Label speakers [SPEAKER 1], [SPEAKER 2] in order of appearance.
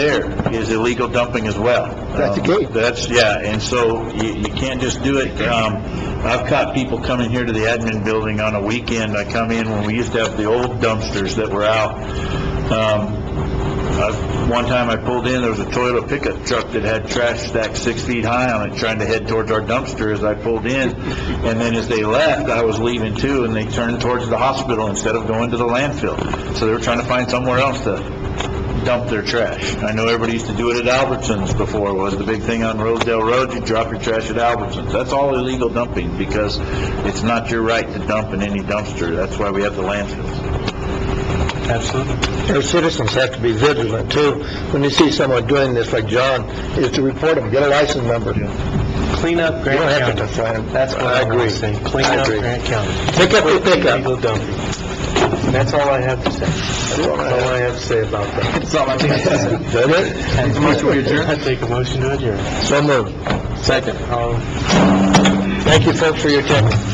[SPEAKER 1] there is illegal dumping as well. Um,
[SPEAKER 2] That's the gate.
[SPEAKER 1] That's, yeah, and so you, you can't just do it. Um, I've caught people coming here to the admin building on a weekend. I come in when we used to have the old dumpsters that were out. Um, I- One time I pulled in, there was a Toyota pickup truck that had trash stacked six feet high on it, trying to head towards our dumpster as I pulled in. And then as they left, I was leaving too, and they turned towards the hospital instead of going to the landfill. So they were trying to find somewhere else to dump their trash. I know everybody used to do it at Albertsons before, was the big thing on Rosedale Road, you drop your trash at Albertsons. That's all illegal dumping, because it's not your right to dump in any dumpster. That's why we have the landfills.
[SPEAKER 3] Absolutely.
[SPEAKER 2] Our citizens have to be vigilant too. When you see someone doing this like John, is to report them, get a license number. You
[SPEAKER 3] Clean up
[SPEAKER 2] don't
[SPEAKER 3] Grant
[SPEAKER 2] have to
[SPEAKER 3] County.
[SPEAKER 2] define them.
[SPEAKER 3] That's what I
[SPEAKER 2] agree.
[SPEAKER 3] agree. say. Clean
[SPEAKER 2] I
[SPEAKER 3] up
[SPEAKER 2] agree.
[SPEAKER 3] Grant County.
[SPEAKER 2] Pick up your pickup.
[SPEAKER 3] Illegal dumping. And that's all I have to say. That's all I have to say about that.
[SPEAKER 2] That's all I think. Is it?
[SPEAKER 3] I take a motion to adjourn.
[SPEAKER 2] So moved.
[SPEAKER 3] Second. All
[SPEAKER 2] Thank you folks for your time.